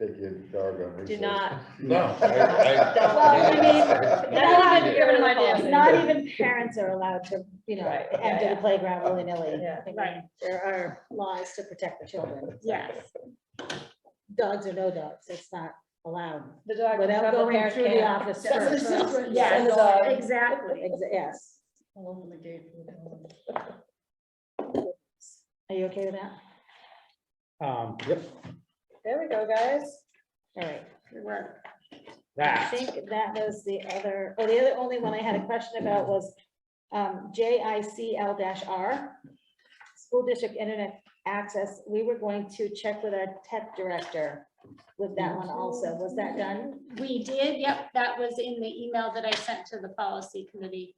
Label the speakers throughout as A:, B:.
A: take your doggone
B: Do
A: resources.
B: not.
A: No.
B: Well, I mean,
C: Not
B: that's
C: even
B: a given
C: parents-
B: idea.
C: Not even parents are allowed to, you know,
B: Right, yeah,
C: enter
B: yeah.
C: the playground willy-nilly.
B: Yeah.
C: I mean,
D: Right.
C: There are laws to protect the children.
D: Yes,
C: Dogs or no dogs, it's not allowed.
B: The dog, the
C: Without going
B: parent
C: through the
B: can't.
C: office
B: That's
C: first.
B: the children.
D: yes,
B: And the dog.
D: exactly.
C: Ex- Yes. Are you okay with that?
E: Um, yep,
B: There we go, guys.
C: All right.
D: Good work.
C: I
E: that,
C: think that was the other, oh, the other only one I had a question about was um, JICL R. School District Internet Access, we were going to check with our tech director with that one also. Was that done?
D: We did, yep, that was in the email that I sent to the policy committee.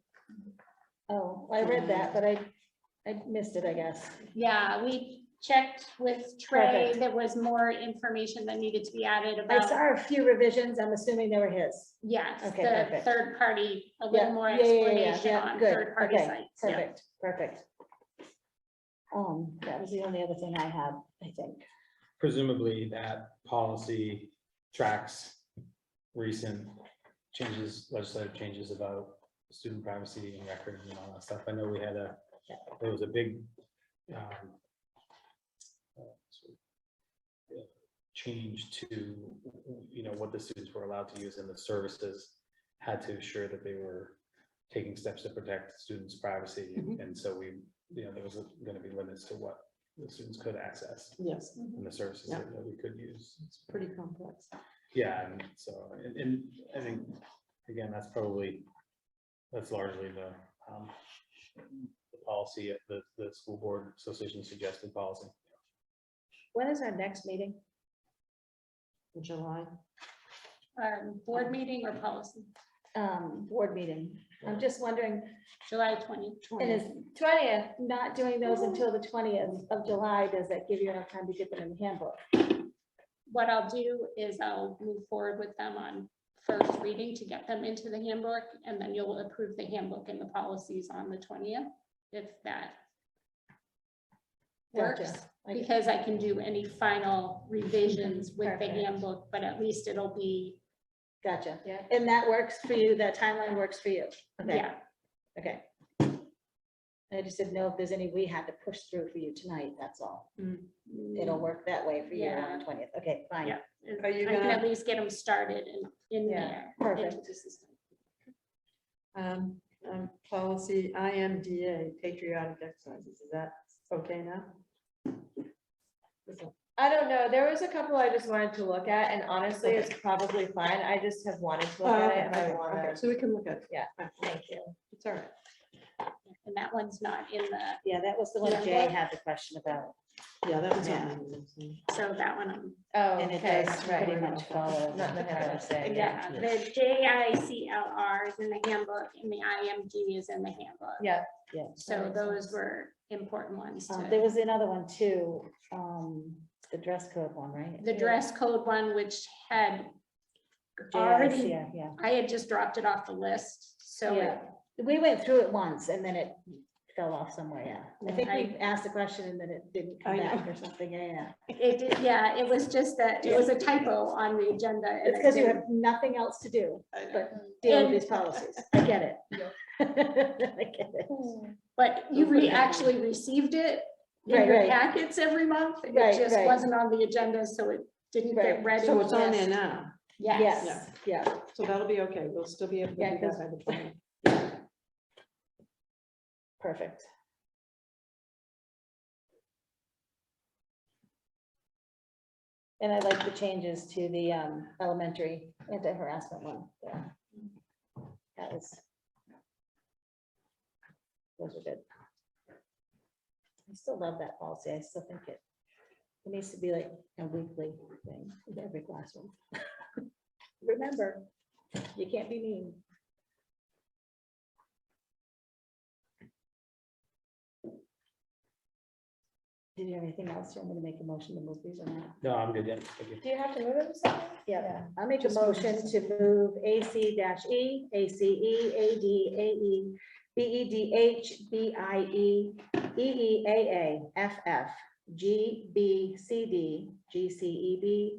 C: Oh, I read
D: Um,
C: that, but I, I missed it, I guess.
D: Yeah, we checked with Trey,
C: Perfect.
D: there was more information that needed to be added
C: I
D: about,
C: saw a few revisions. I'm assuming they were his.
D: yes,
C: Okay,
D: the
C: perfect.
D: third party, a
C: Yeah,
D: little more
C: yeah, yeah, yeah, yeah,
D: explanation
C: yeah,
D: on
C: good,
D: third party
C: okay,
D: sites. yeah.
C: Perfect, perfect. Um, that was the only other thing I had, I think.
E: presumably that policy tracks recent changes, legislative changes about student privacy and records and all that stuff. I know we had a, there was a big um, uh, change to, you know, what the students were allowed to use and the services had to ensure that they were taking steps to protect students' privacy.
C: Mhm.
E: And so we, you know, there was gonna be limits to what the students could access
F: Yes,
E: and the services
F: Yeah.
E: that that we could use. It's
F: pretty complex.
E: Yeah, and so, and, and I think, again, that's probably, that's largely the, um, the policy, of the, the school board association suggested policy.
C: When is our next meeting?
F: In July,
D: Um, Board meeting or policy,
C: Um, board meeting. I'm just wondering,
D: July twentieth.
C: and is
F: twenty,
C: twentieth, not doing those until the twentieth of July, does that give you enough time to get them in the handbook?
D: What I'll do is I'll move forward with them on first reading to get them into the handbook, and then you'll approve the handbook and the policies on the twentieth, if that works,
C: Gotcha. Okay.
D: because I can do any final revisions with the
C: Perfect.
D: handbook, but at least it'll be,
C: Gotcha.
B: Yeah.
C: And that works for you, that timeline works for you? Okay.
D: yeah,
C: Okay. I just didn't know if there's any we had to push through for you tonight, that's all. It'll work that way for you on the twentieth. Okay, fine.
D: Yeah. I
F: Are you
D: can
F: gonna-
D: at least get them started and in
B: Yeah,
D: there.
C: perfect.
D: into the system.
F: um, um, policy IMDA, patriotic exercises, is that okay now?
B: I don't know. There was a couple I just wanted to look at and honestly, it's probably fine. I just have wanted to look at it and I
F: Uh, Okay,
B: wanna,
F: So we can look at.
B: Yeah.
F: Alright,
B: thank you.
F: It's all right.
D: And that one's not in the,
C: Yeah, that was the one
D: Yeah.
C: Jay had the question about,
F: Yeah, that was. on
C: Yeah.
F: my list, yeah.
D: so that one, I'm
B: Oh,
C: and it
B: okay,
C: does pretty
B: right.
C: much follow.
B: Not in the handbook.
C: saying.
D: Yeah, the J I C L R is in the handbook and the I M G is in the handbook.
B: Yeah,
C: Yeah.
D: So those were important ones
C: Um, There
D: to,
C: was another one too, um, the dress code one, right?
D: the dress code one, which had
C: JIC,
D: already,
C: Yeah, yeah.
D: I had just dropped it off the list, so it-
C: Yeah. We went through it once and then it fell off somewhere, yeah. I think
D: I-
C: we asked the question and then it didn't
F: I
C: come
F: know.
C: back or something, yeah, yeah.
D: it, did- yeah, it was just that, it was a typo on the agenda. and
C: It's
D: I
C: because you
D: didn't-
C: have nothing else to do, but deal
D: And-
C: with these policies. I get it. I get it.
D: Hmm. But you re, actually received it in
C: Right,
D: your
C: right.
D: packets every month, it
C: Right,
D: just
C: right.
D: wasn't on the agenda, so it didn't
C: Right.
D: get read. in
F: So
D: the
F: it's on there
D: list.
F: now,
D: Yes.
C: Yes, yeah.
F: so that'll be okay, we'll still be able
C: Yeah,
F: to do
C: because-
F: that by the twentieth.
C: Perfect. And I like the changes to the um, elementary anti-harassment one. yeah. That was. Those are good. I still love that policy. I still think it, it needs to be like a weekly thing in every classroom. Remember, you can't be mean. Did you have anything else? Do you want me to make a motion to move these or not?
E: No, I'm good, yeah, thank you.
B: Do you have to move it or something?
C: Yeah, I'll make a motion to move AC dash E, ACE, AD, AE, E BEDH, BIE, E E EEAA, FF, GB, CD, GCEB,